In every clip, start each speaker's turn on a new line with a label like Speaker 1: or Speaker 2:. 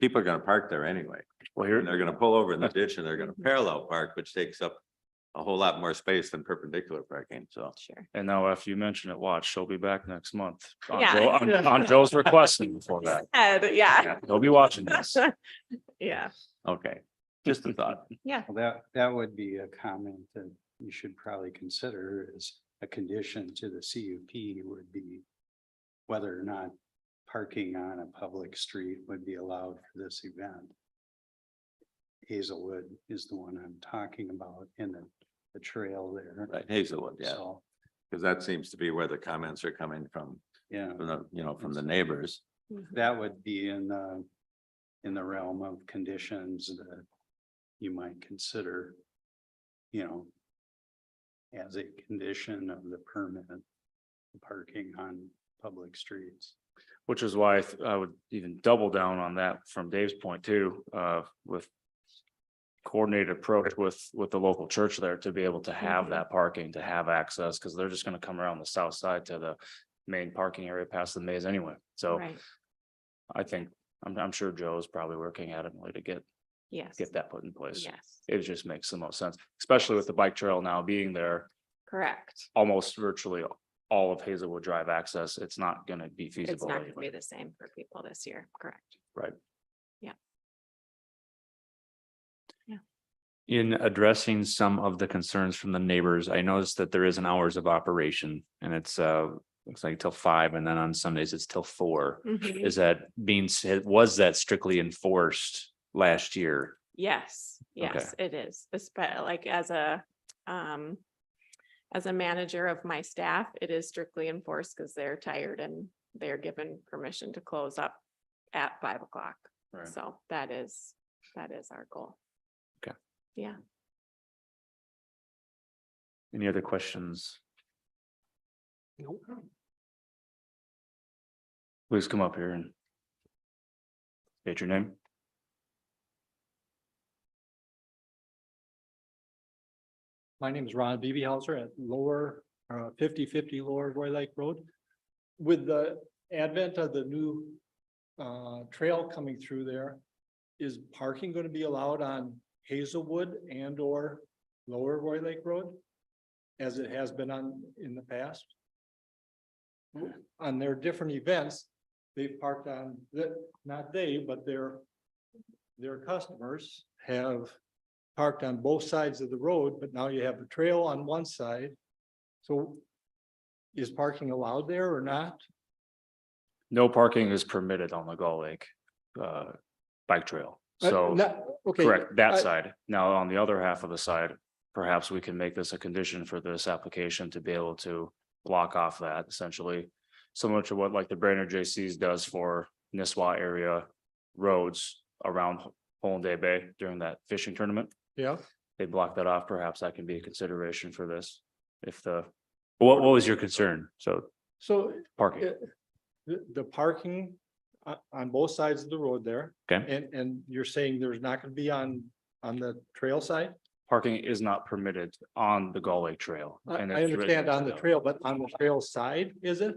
Speaker 1: people are gonna park there anyway.
Speaker 2: Well,
Speaker 1: And
Speaker 2: here,
Speaker 1: they're gonna pull over in the ditch and they're gonna parallel park, which takes up a whole lot more space than perpendicular parking, so.
Speaker 3: Sure.
Speaker 2: and now after you mention it, watch, she'll be back next month. on
Speaker 3: Yeah.
Speaker 2: Joe- On on Joe's request and before that.
Speaker 3: Ed, yeah.
Speaker 2: Yeah, He'll be watching this.
Speaker 3: Yeah,
Speaker 1: Okay, just a thought.
Speaker 3: yeah,
Speaker 4: Well, That, that would be a comment that you should probably consider as a condition to the CUP would be whether or not parking on a public street would be allowed for this event. Hazelwood is the one I'm talking about in the, the trail there.
Speaker 1: Right, Hazelwood, yeah,
Speaker 4: So,
Speaker 1: because that seems to be where the comments are coming from,
Speaker 4: yeah,
Speaker 1: from the, you know, from the neighbors.
Speaker 3: Mm-hmm.
Speaker 4: that would be in the, in the realm of conditions that you might consider, you know, as a condition of the permit, parking on public streets.
Speaker 2: Which is why I th- I would even double down on that from Dave's point too, uh, with coordinated approach with, with the local church there to be able to have
Speaker 3: Mhm.
Speaker 2: that parking, to have access, because they're just gonna come around the south side to the main parking area past the maze anyway. So
Speaker 3: right,
Speaker 2: I think, I'm, I'm sure Joe's probably working adamantly to get,
Speaker 3: yes,
Speaker 2: get that put in place.
Speaker 3: yes,
Speaker 2: It just makes the most sense, especially with the bike trail now being there,
Speaker 3: correct.
Speaker 2: almost virtually all of Hazelwood Drive access. It's not gonna be
Speaker 3: It's
Speaker 2: feasible.
Speaker 3: not gonna be
Speaker 2: anyway.
Speaker 3: the same for people this year, correct?
Speaker 5: In addressing some of the concerns from the neighbors, I noticed that there is an hours of operation and it's uh, looks like till five and then on Sundays it's till four.
Speaker 2: Mm-hmm.
Speaker 5: Is that being, said? was that strictly enforced last year?
Speaker 3: Yes, yes, it is, especially like as a, um, as a manager of my staff, it is strictly enforced because they're tired and they're given permission to close up at five o'clock.
Speaker 4: Right.
Speaker 3: So that is, that is our goal.
Speaker 5: Any other questions?
Speaker 2: Please come up here and state your name.
Speaker 6: My name is Ron Beebehauser at lower, uh, fifty-fifty Lower Roy Lake Road. With the advent of the new, uh, trail coming through there, is parking going to be allowed on Hazelwood and or Lower Roy Lake Road? As it has been on, in the past? On their different events, they've parked on, that, not they, but their, their customers have parked on both sides of the road, but now you have a trail on one side. So is parking allowed there or not?
Speaker 2: No parking is permitted on the Gull Lake uh bike trail.
Speaker 6: Uh,
Speaker 2: So
Speaker 6: not- Okay. uh,
Speaker 2: correct that
Speaker 6: I-
Speaker 2: side. Now, on the other half of the side, perhaps we can make this a condition for this application to be able to block off that essentially. Similar to what like the Brainerd JCs does for Nisswa area roads around Holiday Bay during that fishing tournament.
Speaker 6: Yeah,
Speaker 2: They block that off. Perhaps that can be a consideration for this if the
Speaker 5: What, what was your concern? So
Speaker 6: so
Speaker 2: parking.
Speaker 6: uh, the, the parking on, on both sides of the road there.
Speaker 5: Okay.
Speaker 6: And, and you're saying there's not going to be on, on the trail side?
Speaker 2: parking is not permitted on the Gull Lake Trail.
Speaker 6: I,
Speaker 2: and
Speaker 6: I
Speaker 2: it's written
Speaker 6: understand on the
Speaker 2: so.
Speaker 6: trail, but on the trail side, is it?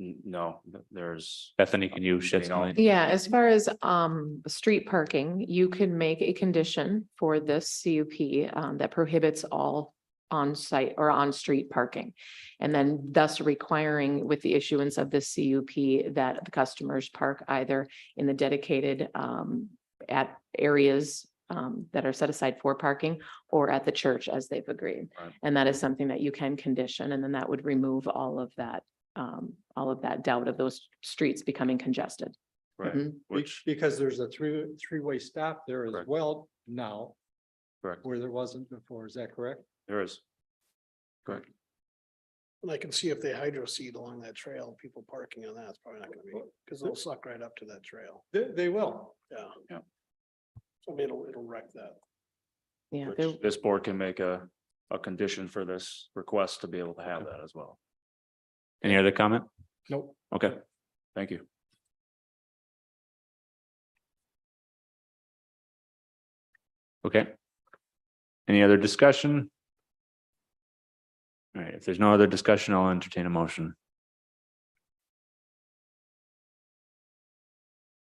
Speaker 2: N- No, th- there's,
Speaker 5: Bethany, can you shed some light?
Speaker 7: Yeah, as far as um street parking, you can make a condition for this CUP um that prohibits all on-site or on-street parking. And then thus requiring with the issuance of this CUP that the customers park either in the dedicated um at areas um that are set aside for parking or at the church as they've agreed.
Speaker 2: Right.
Speaker 7: And that is something that you can condition, and then that would remove all of that um all of that doubt of those streets becoming congested.
Speaker 2: right,
Speaker 7: Mhm.
Speaker 6: Be-
Speaker 2: which,
Speaker 6: Because there's a three, three-way stop there as
Speaker 2: Correct.
Speaker 6: well now
Speaker 2: correct,
Speaker 6: where there wasn't before. Is that correct?
Speaker 2: there is.
Speaker 8: And I can see if they hydro seed along that trail, people parking on that, it's probably not gonna be, because it'll suck right up to that trail,
Speaker 6: They, they will.
Speaker 8: yeah.
Speaker 2: Yeah.
Speaker 8: So it'll, it'll wreck that.
Speaker 7: Yeah, there,
Speaker 2: Which this board can make a, a condition for this request to be able to have that as well.
Speaker 5: Any other comment?
Speaker 6: Nope.
Speaker 5: Okay.
Speaker 2: Thank you.
Speaker 5: Okay. Any other discussion? All right, if there's no other discussion, I'll entertain a motion.